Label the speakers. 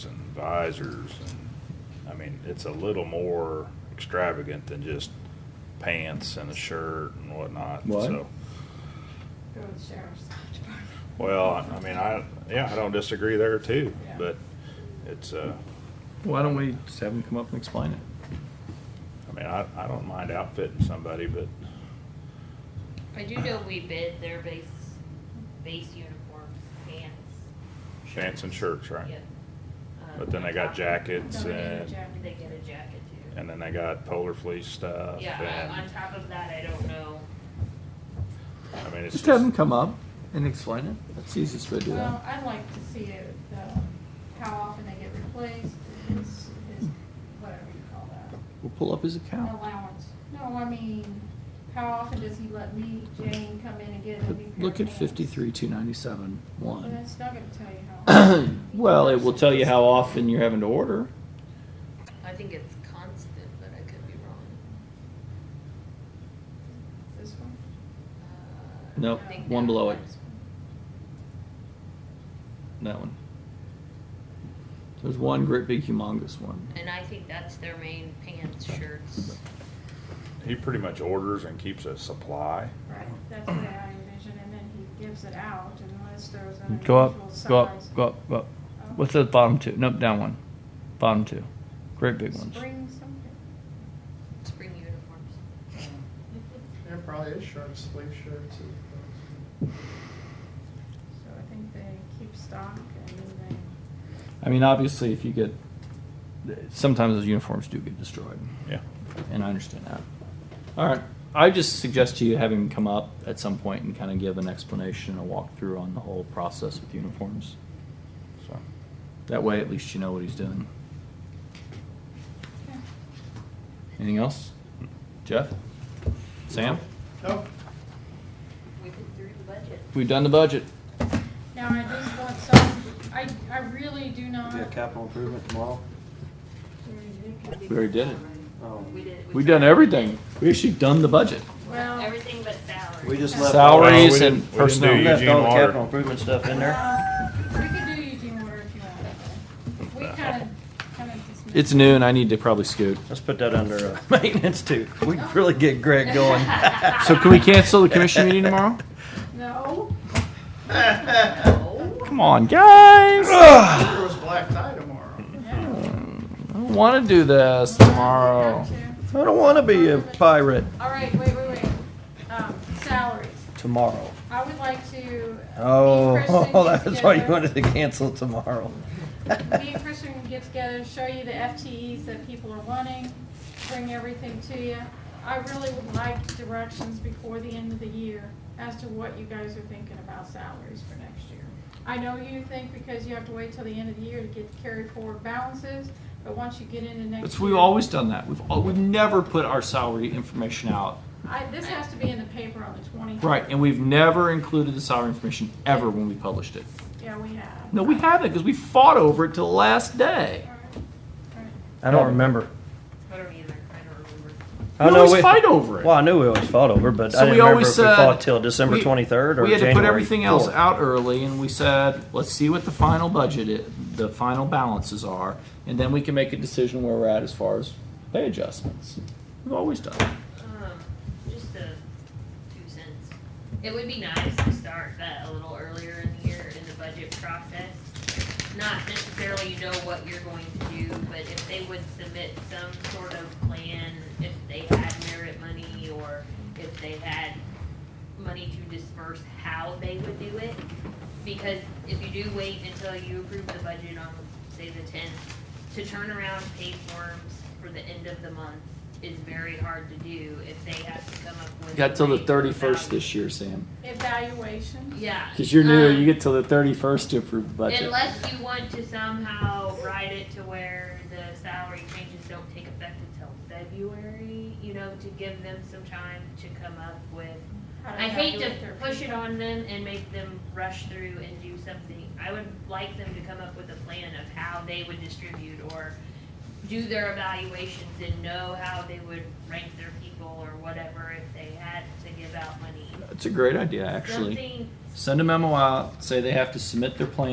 Speaker 1: visors. And, I mean, it's a little more extravagant than just pants and a shirt and whatnot.
Speaker 2: What?
Speaker 1: So,
Speaker 3: Go to the sheriff's department.
Speaker 1: well, I mean, I yeah, I don't disagree there too,
Speaker 3: Yeah.
Speaker 1: but it's uh,
Speaker 2: Why don't we just have them come up and explain it?
Speaker 1: I mean, I, I don't mind outfitting somebody, but
Speaker 4: I do know we bid their base, base uniforms, pants.
Speaker 1: pants and shirts, right?
Speaker 4: Yeah. Um,
Speaker 1: But then they got jackets
Speaker 3: Don't they get a
Speaker 1: and
Speaker 3: jacket?
Speaker 4: They get a jacket too.
Speaker 1: and then uh, they got polar fleece stuff.
Speaker 4: Yeah,
Speaker 1: and,
Speaker 4: on- on top of that, I don't know.
Speaker 1: I mean, it's
Speaker 2: Just have them come up and explain it. That's the easiest way to do
Speaker 3: Well,
Speaker 2: that.
Speaker 3: I'd like to see it, um, how often they get replaced, is, is, whatever you call that.
Speaker 2: We'll pull up his account.
Speaker 3: Allowance. No, I mean, how often does he let me, Jane, come in and get a new
Speaker 2: But
Speaker 3: pair of
Speaker 2: look at
Speaker 3: pants?
Speaker 2: fifty-three, two ninety-seven,
Speaker 3: But
Speaker 2: one.
Speaker 3: that's not gonna tell you how. often.
Speaker 2: Well, it will tell you how often you're having to order.
Speaker 4: I think it's constant, but I could be wrong.
Speaker 3: This one?
Speaker 4: Uh,
Speaker 2: Nope,
Speaker 4: I think
Speaker 2: one
Speaker 4: that
Speaker 2: below it.
Speaker 4: was-
Speaker 2: That one. There's one great big humongous one.
Speaker 4: And I think that's their main pants, shirts.
Speaker 1: he pretty much orders and keeps a supply.
Speaker 3: Right, that's the way I envision, and then he gives it out unless there's an
Speaker 5: Go
Speaker 3: unusual size. Oh.
Speaker 5: up, go up, go up, go up. What's the bottom two? Nope, down one. Bottom two. Great big ones.
Speaker 3: Spring something.
Speaker 4: Spring uniforms.
Speaker 6: There probably is shirts, sleeve shirts. and-
Speaker 3: So I think they keep stock and then
Speaker 2: I mean, obviously, if you get, sometimes those uniforms do get destroyed,
Speaker 1: Yeah.
Speaker 2: and I understand that. All right, I just suggest to you having him come up at some point and kind of give an explanation, a walkthrough on the whole process with uniforms.
Speaker 1: So
Speaker 2: That way, at least you know what he's doing.
Speaker 3: they.
Speaker 2: Anything else? Jeff? Sam?
Speaker 6: Nope.
Speaker 4: We could through the budget.
Speaker 2: We've done the budget.
Speaker 3: Now, I just want some, I, I really do not.
Speaker 7: Do a capital improvement tomorrow?
Speaker 2: We already did it.
Speaker 7: Oh.
Speaker 4: We did.
Speaker 2: We've done everything. We actually done the budget.
Speaker 3: Well,
Speaker 4: Everything but salary.
Speaker 7: We just left. all-
Speaker 1: Well, we
Speaker 2: Salaries
Speaker 1: didn't-
Speaker 2: and
Speaker 1: we didn't
Speaker 2: personnel.
Speaker 1: do
Speaker 7: We left all
Speaker 1: Eugene
Speaker 7: the
Speaker 1: Water.
Speaker 7: capital improvement stuff in there.
Speaker 3: uh, we could do Eugene water if you want. We kind of, kind of dismissed.
Speaker 2: It's noon. I need to probably scoot.
Speaker 7: Let's put that under uh, maintenance too. We can really get Greg going.
Speaker 2: So can we cancel the commission meeting tomorrow?
Speaker 3: No,
Speaker 4: Oh.
Speaker 2: Come on, guys. I
Speaker 6: There was black tie tomorrow.
Speaker 3: no.
Speaker 2: don't want to Hmm, do this tomorrow.
Speaker 3: Got to.
Speaker 7: I don't want to be a pirate
Speaker 3: All right, wait, wait, wait. Um, salaries.
Speaker 7: tomorrow.
Speaker 3: I would like to.
Speaker 7: Oh,
Speaker 3: me and Kristen get
Speaker 7: that's why you
Speaker 3: together-
Speaker 7: wanted to cancel tomorrow.
Speaker 3: Me and Kristen can get together, show you the FTEs that people are wanting, bring everything to you. I really would like directions before the end of the year as to what you guys are thinking about salaries for next year. I know you think because you have to wait till the end of the year to get the carry forward balances, but once you get into next
Speaker 2: That's,
Speaker 3: year.
Speaker 2: we've always done that. We've al- we've never put our salary information out.
Speaker 3: I, this has to be in the paper on the twentieth.
Speaker 2: Right, and we've never included the salary information ever when we published it.
Speaker 3: Yeah, we have.
Speaker 2: No, we haven't because we fought over it till the last day.
Speaker 3: All right, all right.
Speaker 7: I don't remember.
Speaker 4: I don't either, I don't remember.
Speaker 7: I
Speaker 2: We
Speaker 7: know
Speaker 2: always fight over it.
Speaker 7: Well, I knew we always fought over, it, but I
Speaker 2: So
Speaker 7: didn't
Speaker 2: we
Speaker 7: remember
Speaker 2: always
Speaker 7: if we
Speaker 2: said
Speaker 7: fought till December
Speaker 2: we-
Speaker 7: twenty-third or
Speaker 2: we had
Speaker 7: January.
Speaker 2: to put everything else
Speaker 7: 4th.
Speaker 2: out early, and we said, let's see what the final budget, i- the final balances are, and then we can make a decision where we're at as far as pay adjustments. We've always done that.
Speaker 4: Um, just a two cents. It would be nice to start that a little earlier in the year in the budget process. Not necessarily you know what you're going to do, but if they would submit some sort of plan, if they had merit money or if they had money to disperse, how they would do it. Because if you do wait until you approve the budget on, say, the tenth, to turn around pay forms for the end of the month is very hard to do if they have to come up with.
Speaker 2: Got till the
Speaker 4: a
Speaker 2: thirty-first
Speaker 4: value.
Speaker 2: this year, Sam,
Speaker 3: Evaluation.
Speaker 4: Yeah.
Speaker 2: because you're new,
Speaker 4: um,
Speaker 2: you get till the thirty-first to approve the budget.
Speaker 4: Unless you want to somehow write it to where the salary changes don't take effect until February, you know, to give them some time to come up with
Speaker 3: how to
Speaker 4: I hate to
Speaker 3: evaluate their
Speaker 4: push it
Speaker 3: people.
Speaker 4: on them and make them rush through and do something. I would like them to come up with a plan of how they would distribute or do their evaluations and know how they would rank their people or whatever if they had to give out money.
Speaker 2: It's a great idea, actually.
Speaker 4: Something
Speaker 2: Send a memo out, say they have to submit their plan